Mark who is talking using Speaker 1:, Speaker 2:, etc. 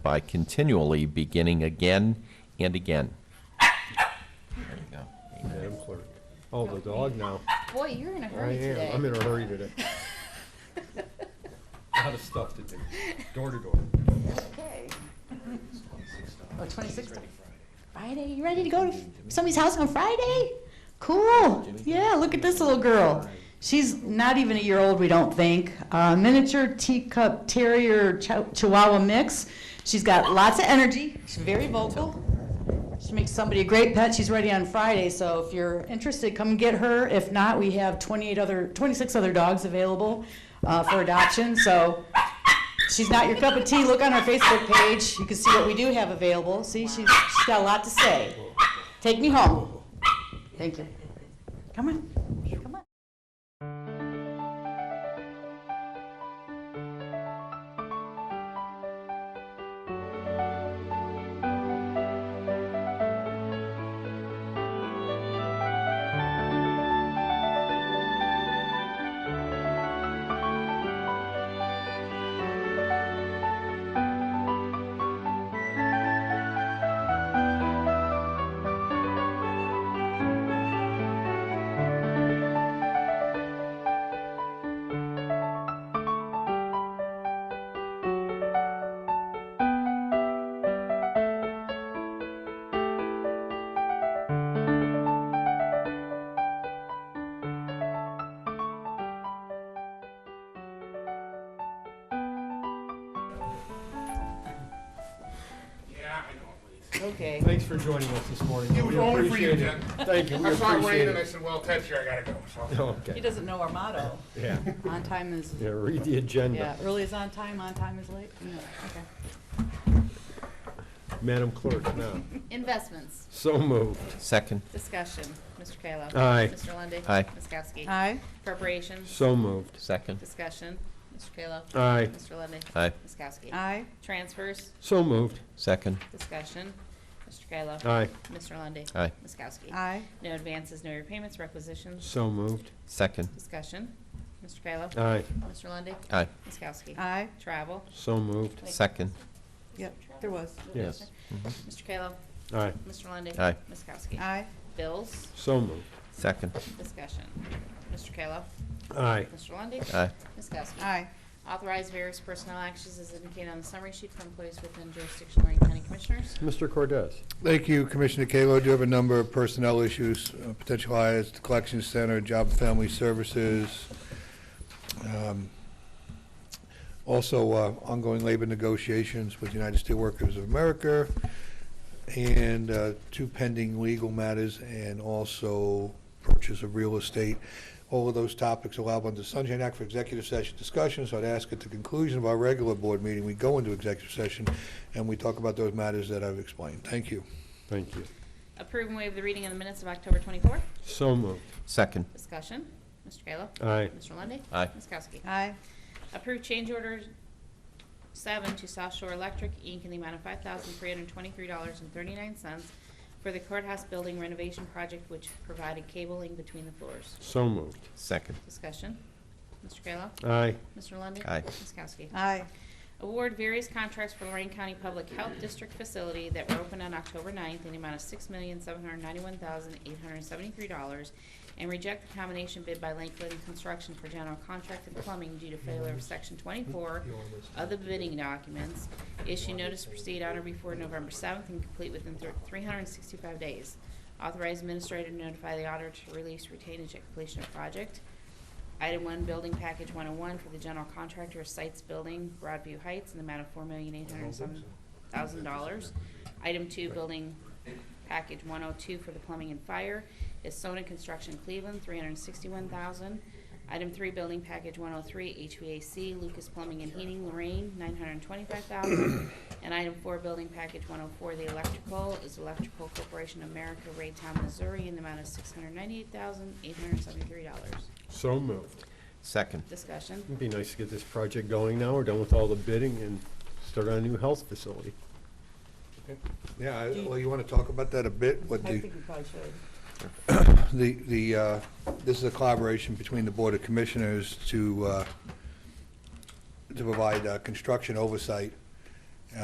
Speaker 1: by continually beginning again and again. There you go.
Speaker 2: Madam Clerk. Oh, the dog now.
Speaker 3: Boy, you're in a
Speaker 2: I
Speaker 3: hurry today.
Speaker 2: am, I'm in a hurry today. Lot of stuff to do, door to door.
Speaker 3: Oh, 26th. Friday, you ready to go to somebody's house on Friday? Cool. Yeah, look at this little girl. She's not even a year old, we don't think. Uh, miniature teacup terrier chow- chihuahua mix. She's got lots of energy. She's very vocal. She makes somebody a great pet. She's ready on Friday, so if you're interested, come get her. If not, we have 28 other, 26 other dogs available uh, for adoption. So she's not your cup of tea. Look on our Facebook page. You can see what we do have available. See, she's, she's got a lot to say. Take me home. Thank you. Come on. Come on. Okay.
Speaker 2: Thanks for joining us this morning.
Speaker 4: It was
Speaker 2: We
Speaker 4: only for you,
Speaker 2: appreciate it. Thank you, we
Speaker 4: I saw it rain
Speaker 2: appreciate
Speaker 4: and I
Speaker 2: it.
Speaker 4: said, well, Ted's here, I gotta go, so.
Speaker 2: Okay,
Speaker 3: doesn't know our motto.
Speaker 2: yeah,
Speaker 3: On time is,
Speaker 2: yeah, read the agenda.
Speaker 3: early is on time, on time is late. Okay.
Speaker 2: Madam Clerk, now,
Speaker 5: Investments,
Speaker 2: so moved.
Speaker 1: Second,
Speaker 5: discussion, Mr. Kayla.
Speaker 2: Aye.
Speaker 5: Mr. Lundy.
Speaker 1: Aye.
Speaker 5: Ms. Kowski.
Speaker 3: Aye.
Speaker 5: Appropriations,
Speaker 2: So moved.
Speaker 1: second,
Speaker 5: discussion, Mr. Kayla.
Speaker 2: Aye,
Speaker 5: Mr. Lundy.
Speaker 1: Aye.
Speaker 5: Ms. Kowski.
Speaker 3: Aye.
Speaker 5: Transfers,
Speaker 2: so moved.
Speaker 1: second,
Speaker 5: discussion, Mr. Kayla.
Speaker 2: Aye,
Speaker 5: Mr. Lundy.
Speaker 1: Aye.
Speaker 5: Ms. Kowski.
Speaker 3: Aye.
Speaker 5: No advances, no repayments, requisitions,
Speaker 2: so moved.
Speaker 1: second,
Speaker 5: discussion, Mr. Kayla.
Speaker 2: Aye,
Speaker 5: Mr. Lundy.
Speaker 1: aye,
Speaker 5: Ms. Kowski.
Speaker 3: Aye.
Speaker 5: Travel,
Speaker 2: so moved.
Speaker 1: second,
Speaker 3: Yep, there was.
Speaker 2: Yes.
Speaker 5: Mr. Kayla.
Speaker 2: Aye,
Speaker 5: Mr. Lundy.
Speaker 1: Aye.
Speaker 5: Ms. Kowski.
Speaker 3: Aye.
Speaker 5: Bills,
Speaker 2: so moved.
Speaker 1: second,
Speaker 5: discussion, Mr. Kayla.
Speaker 2: Aye,
Speaker 5: Mr. Lundy.
Speaker 1: aye,
Speaker 5: Ms. Kowski.
Speaker 3: Aye.
Speaker 5: Authorize various personnel actions as indicated on the summary sheet for employees within jurisdiction of Lorraine County Commissioners.
Speaker 2: Mr. Cordez.
Speaker 6: Thank you, Commissioner Kalo. Do you have a number of personnel issues, uh, potential hires, the collection center, job and family services? um, Also, uh, ongoing labor negotiations with United Steelworkers of America, and uh, two pending legal matters, and also purchase of real estate. All of those topics allowed under Sunshine Act for executive session discussion, so I'd ask at the conclusion of our regular board meeting, we go into executive session, and we talk about those matters that I've explained. Thank you.
Speaker 2: Thank you.
Speaker 5: Approve and waive the reading of the minutes of October 24th.
Speaker 2: So moved.
Speaker 1: second,
Speaker 5: Discussion. Mr. Kayla.
Speaker 2: Aye,
Speaker 5: Mr. Lundy.
Speaker 1: Aye.
Speaker 5: Ms. Kowski.
Speaker 3: Aye.
Speaker 5: Approve change order seven to South Shore Electric, Inc. in the amount of $5,323.39 for the courthouse building renovation project, which provided cabling between the floors.
Speaker 2: so moved.
Speaker 1: second,
Speaker 5: Discussion. Mr. Kayla.
Speaker 2: Aye,
Speaker 5: Mr. Lundy.
Speaker 1: Aye.
Speaker 5: Ms. Kowski.
Speaker 3: Aye.
Speaker 5: Award various contracts for Lorraine County Public Health District facility that were opened on October 9th in the amount of $6,791,873 and reject the combination bid by Lakeland Construction for general contract and plumbing due to failure of Section 24 of the bidding documents. Issue notice to proceed on or before November 7th and complete within thir- 365 days. Authorize administrator to notify the auditor to release retainage at completion of project. Item one, building package one oh one for the general contractor, sites building, Broadview Heights, in the amount of four million eight hundred and some thousand dollars. Item two, building package one oh two for the plumbing and fire, is Sona Construction Cleveland, three hundred and sixty-one thousand. Item three, building package one oh three, HVAC, Lucas Plumbing and Heating, Lorraine, nine hundred and twenty-five thousand. And item four, building package one oh four, the electrical, is Electrical Corporation of America, Raytown, Missouri, in the amount of six hundred and ninety-eight thousand eight hundred and seventy-three dollars.
Speaker 2: so moved.
Speaker 1: second,
Speaker 5: Discussion.
Speaker 2: It'd be nice to get this project going now. We're done with all the bidding and start on a new health facility.
Speaker 6: Yeah, I- well, you want to talk about that a bit, what the
Speaker 3: we probably should.
Speaker 6: The, the, uh, this is a collaboration between the Board of Commissioners to, uh, to provide uh, construction oversight